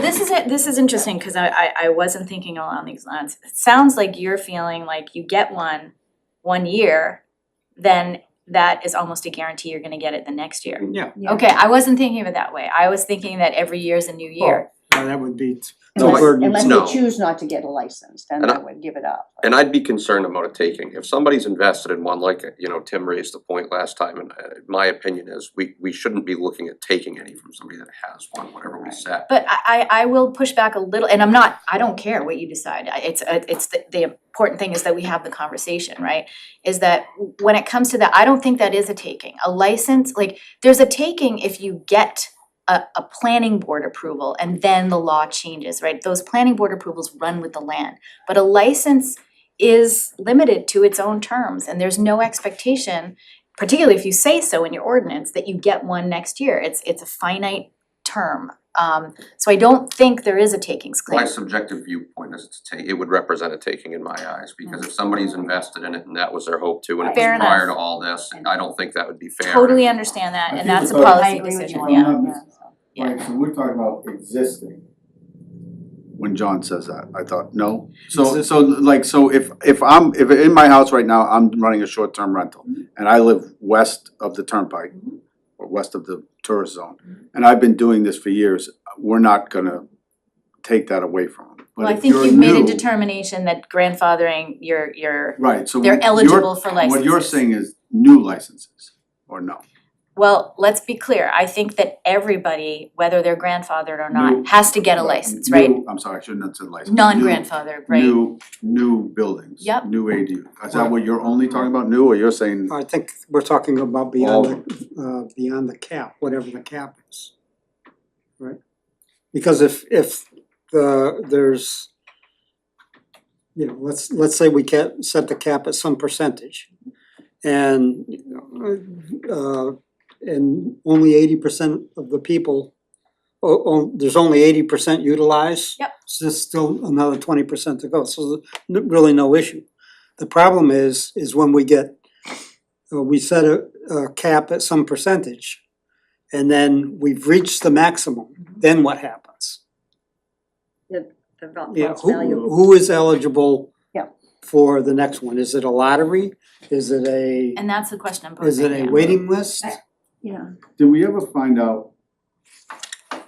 this is it, this is interesting, cause I I I wasn't thinking along these lines. It sounds like you're feeling like you get one, one year, then that is almost a guarantee you're gonna get it the next year. Yeah, Yeah. Okay, I wasn't thinking of it that way. I was thinking that every year is a new year. now that would be, No, Unless- we're- no. Unless they choose not to get a license, then And they I- would give it up. And I'd be concerned about it taking, if somebody's invested in one, like, you know, Tim raised the point last time, and uh, my opinion is, we, we shouldn't be looking at taking any from somebody that has one, whatever we set. But I I I will push back a little, and I'm not, I don't care what you decide. I- It's uh, it's the the important thing is that we have the conversation, right? Is that when it comes to that, I don't think that is a taking. A license, like, there's a taking if you get a a planning board approval and then the law changes, right? Those planning board approvals run with the land. But a license is limited to its own terms and there's no expectation, particularly if you say so in your ordinance, that you get one next year. It's it's a finite term. Um so I don't think there is a takings My claim. subjective viewpoint is to take, it would represent a taking in my eyes, because if somebody's invested in it and that was their hope too, and it Mm-hmm. Fair was prior enough. to all this, I don't think that would be fair. Totally understand that and that's a I think about- policy decision, yeah. yeah. Right, so we're talking about existing. When John says that, I thought, no, so so like, so if if I'm, if in my house right now, I'm running a short term rental. And I live west of the turnpike, or west of the tourist zone, and I've been doing this for years, we're not gonna take that away from them. Well, I think you've made a determination that grandfathering your your, Right, so they're what you're- eligible for licenses. What you're saying is new licenses, or no? Well, let's be clear, I think that everybody, whether they're grandfathered or New- not, has to get a Right, license, right? new- I'm sorry, I shouldn't have said license. New- Non-grandfathered, right? New, new buildings. Yep. New ADU. Is that what you're only talking about, new, or you're saying, I think we're talking about beyond the, uh, beyond the cap, whatever the cap is. Right? Because if, if the, there's, you know, let's, let's say we can set the cap at some percentage. And, uh, and only eighty percent of the people, oh, oh, there's only eighty percent utilized. Yep. So there's still another twenty percent to go, so there's really no issue. The problem is, is when we get, uh, we set a, a cap at some percentage, and then we've reached the maximum, Mm-hmm. then what happens? The val- Yeah, most who, valuable. who is eligible Yeah. for the next one? Is it a lottery? Is it a, And that's the question I'm is posing, it a yeah. waiting list? Yeah. did we ever find out?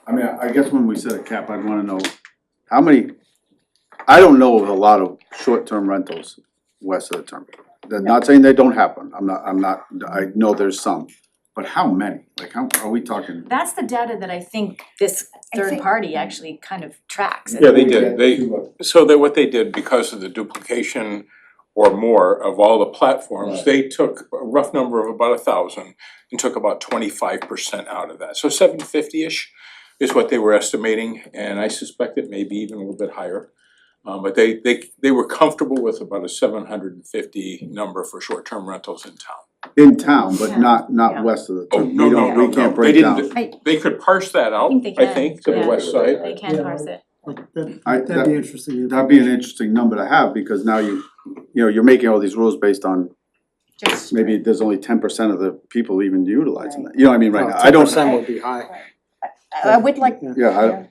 I mean, I guess when we set a cap, I'd wanna know how many, I don't know of a lot of short-term rentals west of the turnpike. They're not saying they don't happen, I'm not, I'm not, I know there's some, but how many? Like, how, are we talking? That's the data that I think this I third think- party actually kind of tracks. Yeah, they did. They- uh, So that what they did, because of the duplication or more of all the platforms, Right. they took a rough number of about a thousand and took about twenty-five percent out of that. So seven fifty-ish is what they were estimating, and I suspect it may be even a little bit higher. Um, but they, they, they were comfortable with about a seven hundred and fifty number for short-term rentals in town. In town, but Yeah. not, Yeah. not west of the Oh, turnpike, no, we no, don't, no, we no. can't They break didn't down. do- They could parse that out, think they I can, think, to the yeah. west side. They can Yeah. parse it. Like, that- I- That'd be that- interesting. That'd be an interesting number to have, because now you, you know, you're making all these rules based on, Just. maybe there's only ten percent of the people even utilizing that, you know what I mean, right now, I Ten don't. percent would be high. I I would like, Yeah. Yeah, I, yeah,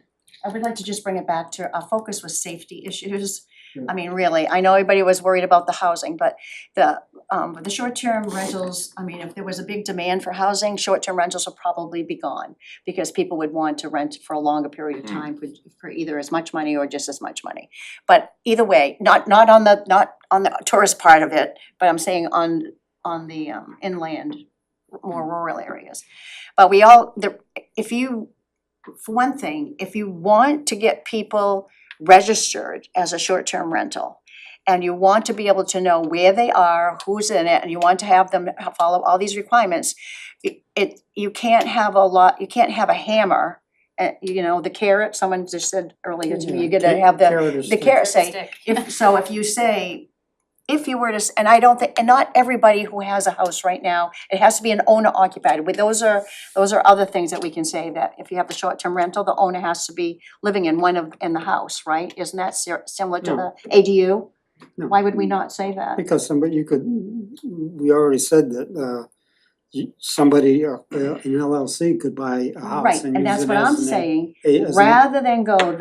I would like to just bring it back to, our focus was safety issues. Yeah. I mean, really, I know everybody was worried about the housing, but the, um, with the short-term rentals, I mean, if there was a big demand for housing, short-term rentals will probably be gone. Because people would want to rent for a longer period of Mm. time for, for either as much money or just as much money. But either way, not, not on the, not on the tourist part of it, but I'm saying on, on the um, inland, more rural areas. But we all, the, if you, for one thing, if you want to get people registered as a short-term rental, and you want to be able to know where they are, who's in it, and you want to have them follow all these requirements, it- it, you can't have a lot, you can't have a hammer, uh, you know, the carrot, someone just said earlier to me, you gotta have the, the carrot say, Stick. if, so if you say, if you were to, s- and I don't think, and not everybody who has a house right now, it has to be an owner occupied, but those are, those are other things that we can say, that if you have the short-term rental, the owner has to be living in one of, in the house, right? Isn't that si- similar to the ADU? No. Why would we not say that? Because somebody, you could, we already said that, uh, you, somebody, uh, uh, an LLC could buy a house Right, and and use that's it what I'm as an A- saying, a- as an rather than go